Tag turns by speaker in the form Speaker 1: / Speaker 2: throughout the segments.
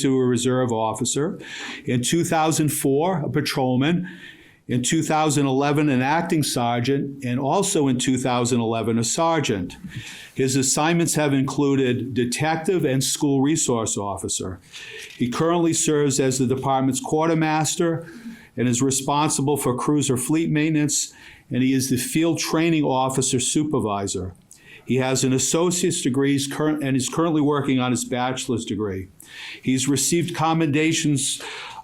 Speaker 1: to a reserve officer. In 2004, a patrolman. In 2011, an acting sergeant, and also in 2011, a sergeant. His assignments have included detective and school resource officer. He currently serves as the department's quartermaster and is responsible for cruiser fleet maintenance, and he is the field training officer supervisor. He has an associate's degree he's current- and is currently working on his bachelor's degree. He's received commendations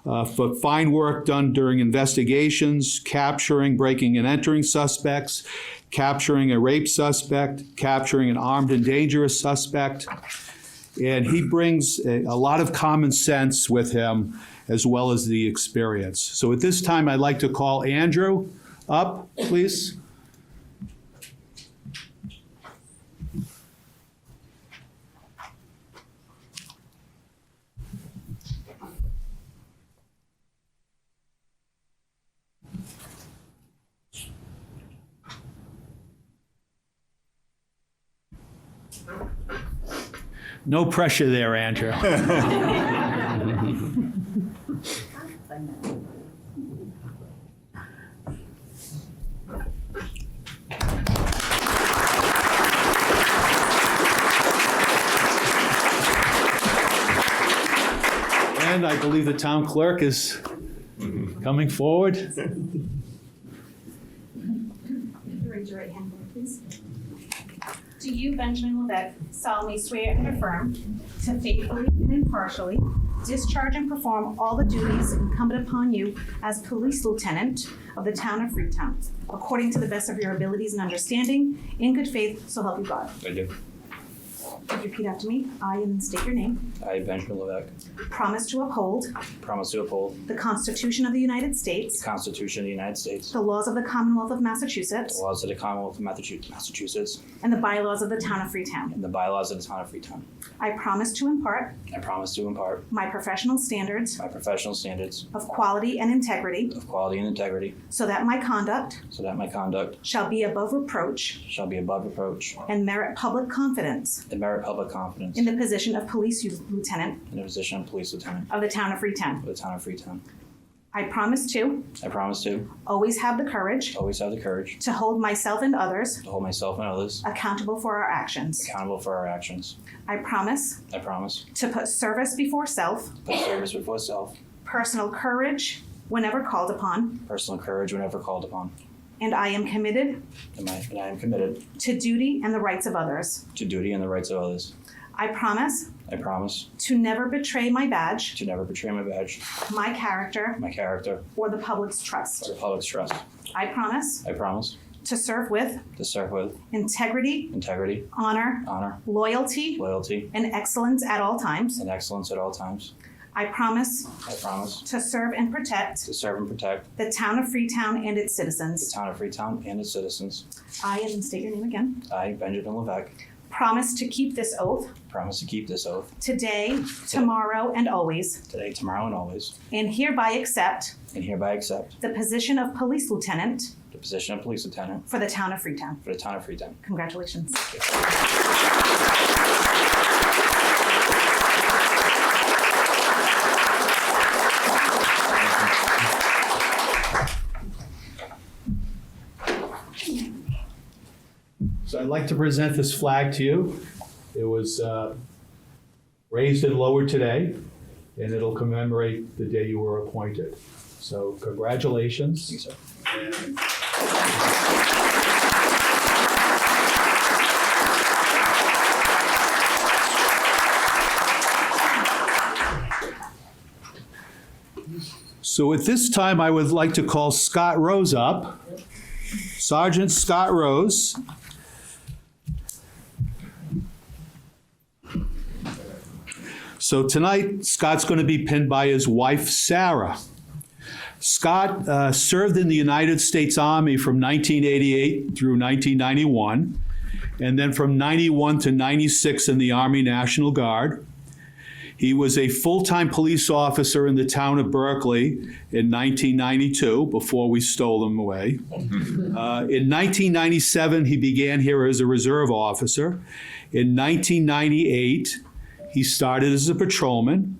Speaker 1: uh, for fine work done during investigations, capturing, breaking, and entering suspects, capturing a rape suspect, capturing an armed and dangerous suspect. And he brings a, a lot of common sense with him as well as the experience. So at this time, I'd like to call Andrew up, please. No pressure there, Andrew. And I believe the town clerk is coming forward.
Speaker 2: Raise your right hand, please. Do you, Benjamin Levesque, solemnly swear and affirm to faithfully and impartially discharge and perform all the duties incumbent upon you as police lieutenant of the town of Freetown, according to the best of your abilities and understanding, in good faith, so help you God?
Speaker 3: I do.
Speaker 2: Could you repeat after me? I, and state your name,
Speaker 3: I, Benjamin Levesque,
Speaker 2: promise to uphold
Speaker 3: promise to uphold
Speaker 2: the Constitution of the United
Speaker 3: the
Speaker 2: States,
Speaker 3: Constitution of the United States,
Speaker 2: the laws of the Commonwealth of
Speaker 3: the
Speaker 2: Massachusetts,
Speaker 3: laws of the Commonwealth of Massachu- Massachusetts,
Speaker 2: and the bylaws of the town of Freetown.
Speaker 3: and the bylaws of the town of Freetown.
Speaker 2: I promise to impart
Speaker 3: I promise to impart
Speaker 2: my professional standards
Speaker 3: my professional standards
Speaker 2: of quality and integrity
Speaker 3: of quality and integrity
Speaker 2: so that my conduct
Speaker 3: so that my conduct
Speaker 2: shall be above reproach
Speaker 3: shall be above reproach
Speaker 2: and merit public confidence
Speaker 3: and merit public confidence
Speaker 2: in
Speaker 3: in
Speaker 2: the position of police lieutenant
Speaker 3: the position of police lieutenant
Speaker 2: of the town of Freetown.
Speaker 3: of the town of Freetown.
Speaker 2: I promise to
Speaker 3: I promise to
Speaker 2: always have the courage
Speaker 3: always have the courage
Speaker 2: to hold myself and others
Speaker 3: to hold myself and others
Speaker 2: accountable for our actions.
Speaker 3: accountable for our actions.
Speaker 2: I promise
Speaker 3: I promise
Speaker 2: to put service before self,
Speaker 3: to put service before self,
Speaker 2: personal courage whenever called upon,
Speaker 3: personal courage whenever called upon,
Speaker 2: and I am committed
Speaker 3: and I, and I am committed
Speaker 2: to duty and the rights of others.
Speaker 3: to duty and the rights of others.
Speaker 2: I promise
Speaker 3: I promise
Speaker 2: to never betray my badge,
Speaker 3: to never betray my badge,
Speaker 2: my character,
Speaker 3: my character,
Speaker 2: or the public's trust.
Speaker 3: or the public's trust.
Speaker 2: I promise
Speaker 3: I promise
Speaker 2: to serve with
Speaker 3: to serve with
Speaker 2: integrity,
Speaker 3: integrity,
Speaker 2: honor,
Speaker 3: honor,
Speaker 2: loyalty,
Speaker 3: loyalty,
Speaker 2: and excellence at all times.
Speaker 3: and excellence at all times.
Speaker 2: I promise
Speaker 3: I promise
Speaker 2: to serve and protect
Speaker 3: to serve and protect
Speaker 2: the town of Freetown and its
Speaker 3: the
Speaker 2: citizens.
Speaker 3: town of Freetown and its citizens.
Speaker 2: I, and state your name again,
Speaker 3: I, Benjamin Levesque,
Speaker 2: promise to keep this oath
Speaker 3: promise to keep this oath
Speaker 2: today, tomorrow, and always,
Speaker 3: today, tomorrow, and always,
Speaker 2: and hereby accept
Speaker 3: and hereby accept
Speaker 2: the position of police lieutenant
Speaker 3: the position of police lieutenant
Speaker 2: for the town of Freetown.
Speaker 3: for the town of Freetown.
Speaker 2: Congratulations.
Speaker 1: So I'd like to present this flag to you. It was uh, raised and lowered today, and it'll commemorate the day you were appointed. So congratulations.
Speaker 3: Thank you, sir.
Speaker 1: So at this time, I would like to call Scott Rose up. Sergeant Scott Rose. So tonight, Scott's going to be pinned by his wife, Sarah. Scott uh, served in the United States Army from 1988 through 1991, and then from 91 to 96 in the Army National Guard. He was a full-time police officer in the town of Berkeley in 1992, before we stole him away. Uh, In 1997, he began here as a reserve officer. In 1998, he started as a patrolman.